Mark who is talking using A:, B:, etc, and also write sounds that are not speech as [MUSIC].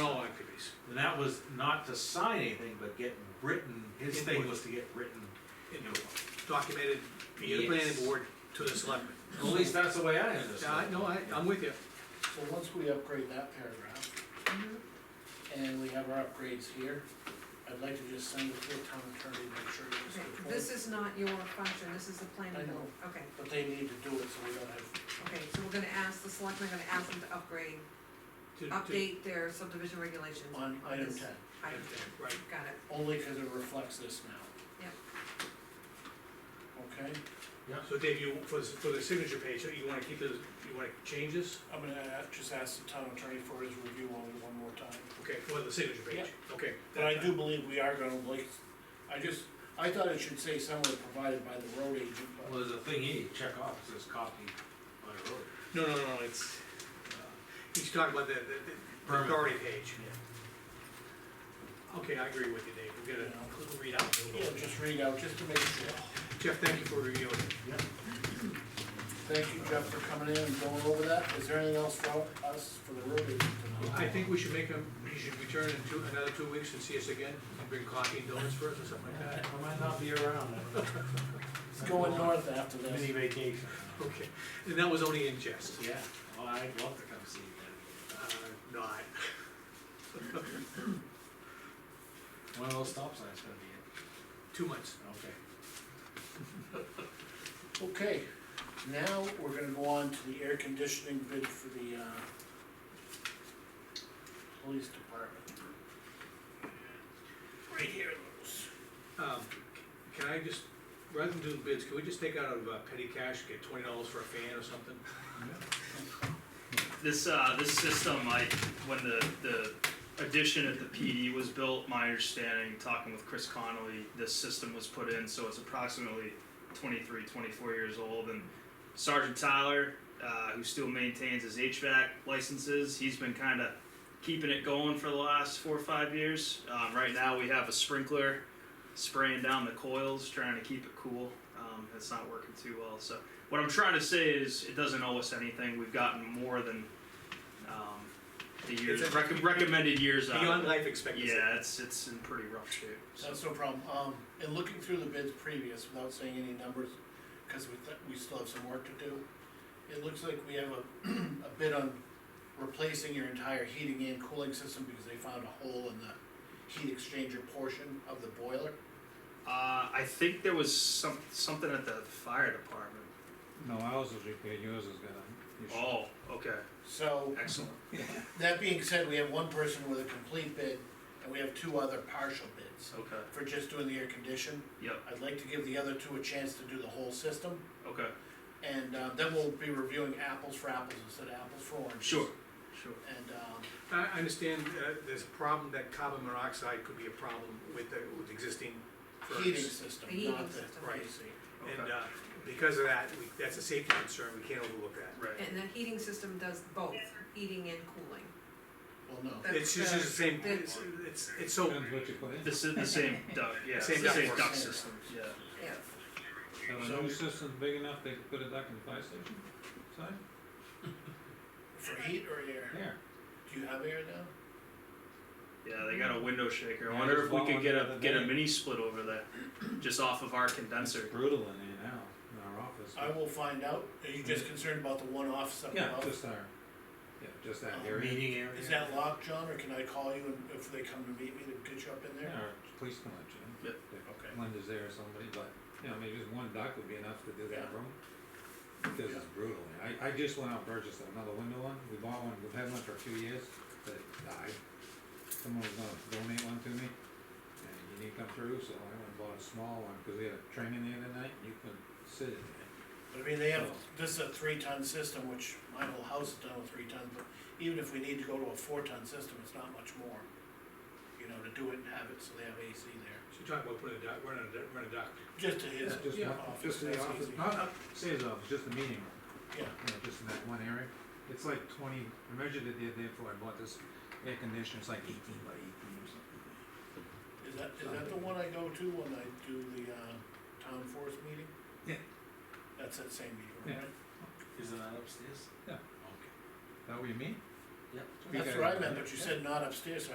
A: weeks. And that was not to sign anything, but get written, his thing
B: Input.
A: was to get written, you know,
B: documented via the planning
A: Yes.
B: board to the selectmen.
A: at least that's the way I
B: Yeah,
A: understand
B: I,
A: it.
B: no, I, I'm with you.
C: So once we upgrade that paragraph,
D: Mm-hmm.
C: and we have our upgrades here, I'd like to just send it to the town attorney, to make sure it's
D: Okay,
C: before.
D: This is not your function, this is the
C: I
D: planning
C: know.
D: board, okay,
C: But they need to do it, so we don't have,
D: okay, so we're gonna ask, the selectmen are gonna ask them to upgrade,
B: to- to-
D: update their subdivision regulations.
C: on item
D: This-
C: ten,
B: yeah,
D: Item,
B: Right,
D: got it,
C: only because it reflects this now.
D: Yep.
C: Okay,
B: so Dave, you, for, the- for the signature page, you wanna keep this, you wanna change this?
C: I'm gonna uh, just ask the town attorney for his review on it one more time.
B: Okay, for the signature page, okay.
C: But I do believe we are gonna like, I just, I thought it should say somewhere provided by the road agent, but
A: Well, there's a thing here, you check off, it says copy by road.
B: No, no, no, it's, uh, he's talking about the, the- the
A: Permit.
B: authority page. Okay, I agree with you, Dave, we gotta read out a
C: yeah,
B: little bit.
C: just read out, just to make sure.
B: Jeff, thank you for reviewing.
A: Yeah.
C: Thank you, Jeff, for coming in and going over that. Is there anything else for us for the road agent tonight?
B: I think we should make him, he should return in two, another two weeks and see us again, and bring coffee and donuts for us or something like that.
A: I might not be around, I don't know.
C: It's going north after this.
A: Mini vacation.
B: Okay, and that was only in jest.
A: Yeah, well, I'd love to come see you
B: Uh, not.
A: then. One of those stop signs gonna be
B: Two months.
A: it, okay.
C: Okay, now we're gonna go on to the air conditioning bid for the, uh, police department. Right here, Louis.
B: Um, can I just, rather than do bids, can we just take out of uh, petty cash, get twenty dollars for a fan or something?
E: This, uh, this system, I, when the, the addition at the PD was built, my understanding, talking with Chris Connolly, this system was put in, so it's approximately 23, 24 years old, and Sergeant Tyler, uh, who still maintains his HVAC licenses, he's been kinda keeping it going for the last four or five years. Um, right now, we have a sprinkler spraying down the coils, trying to keep it cool. Um, it's not working too well, so what I'm trying to say is it doesn't owe us anything. We've gotten more than um, the years
B: It's a-
E: rec- recommended years out.
B: Beyond life expectancy.
E: Uh, yeah, it's it's in pretty rough shape. So.
C: That's no problem, um, and looking through the bids previous, without saying any numbers, cause we, th- we still have some work to do. It looks like we have a, [CLEARS THROAT] a bid on replacing your entire heating and cooling system, because they found a hole in the heat exchanger portion of the boiler.
E: Uh, I think there was some something at the fire department.
F: No, ours is repaired, yours is gonna.
E: Oh, okay,
C: So,
E: excellent.
C: that being said, we have one person with a complete bid, and we have two other partial bids.
E: Okay,
C: For just doing the air condition,
E: yep,
C: I'd like to give the other two a chance to do the whole system,
E: okay,
C: and, uh, then we'll be reviewing apples for apples instead of apples for oranges.
E: sure, sure.
C: And, um,
B: I, I understand, uh, there's a problem that carbon monoxide could be a problem with the, with existing furnace.
C: heating system,
D: The heating
C: not the
D: system.
B: Right.
C: AC.
E: Okay.
B: And, uh, because of that, we, that's a safety concern, we can't overlook that.
E: right.
D: and the heating system does both, heating and cooling.
C: Well, no,
D: That's
B: It's just the same,
D: the-
B: it's, it's, it's so,
F: Depends what you put in.
E: This is the same duct, yeah,
B: Same
E: it's the same
B: ductwork.
E: duct system. Yeah.
D: Yeah,
F: Have a new system big enough, they could put a duck in the fire station, side,
C: for heat or air,
F: there.
C: do you have air now?
E: Yeah, they got a window shaker. I
F: Yeah,
E: wonder
F: there's
E: if we
F: one
E: could
F: on
E: get
F: the
E: a
F: other
E: get a
F: day.
E: mini split over there, just off of our
F: It's
E: condenser.
F: brutal in there now, in our office.
C: I will find out, are you just concerned about the one office up
F: Yeah,
C: above?
F: just our, yeah, just that
C: Um,
F: area.
A: Meeting area.
C: Is that locked, John, or can I call you and if they come to meet me, to get you up in
F: Yeah,
C: there?
F: Our police can let you in.
E: Yep.
C: Okay.
F: If Linda's there or somebody, but, you know, maybe just one duck would be enough to do that
C: Yeah.
F: room. Because it's brutal. in there. I, I just went out and purchased another window one. We bought one, we've had one for a few years, but it died. Someone was gonna donate one to me, and he didn't come through, so I went and bought a small one, cause we had a training the other night, and you couldn't sit in it.
C: But I mean, they have, this is a three-ton system, which my whole house is done with three tons, but even if we need to go to a four-ton system, it's not much more. You know, to do it and have it, so they have AC there,
B: so you're talking about putting a duct, running a, duct- running a duct.
C: just to his
F: It's
C: office,
F: just, not- just the
C: that's
F: office,
C: easy.
F: not, not, say his office, just the meeting room,
C: Yeah,
F: you know, just in that one area. It's like twenty, I measured it the other day before I bought this air conditioner, it's like eighteen by eighteen or something.
C: is that, is that the one I go to when I do the, uh, town forest meeting?
F: Yeah.
C: That's that same meeting,
F: Yeah.
C: right?
A: Isn't that upstairs?
F: Yeah.
A: Okay.
F: Is that what you mean?
A: Yep.
F: We
C: That's
F: got
C: what I
F: it.
C: meant, but you
F: Yeah.
C: said not upstairs, so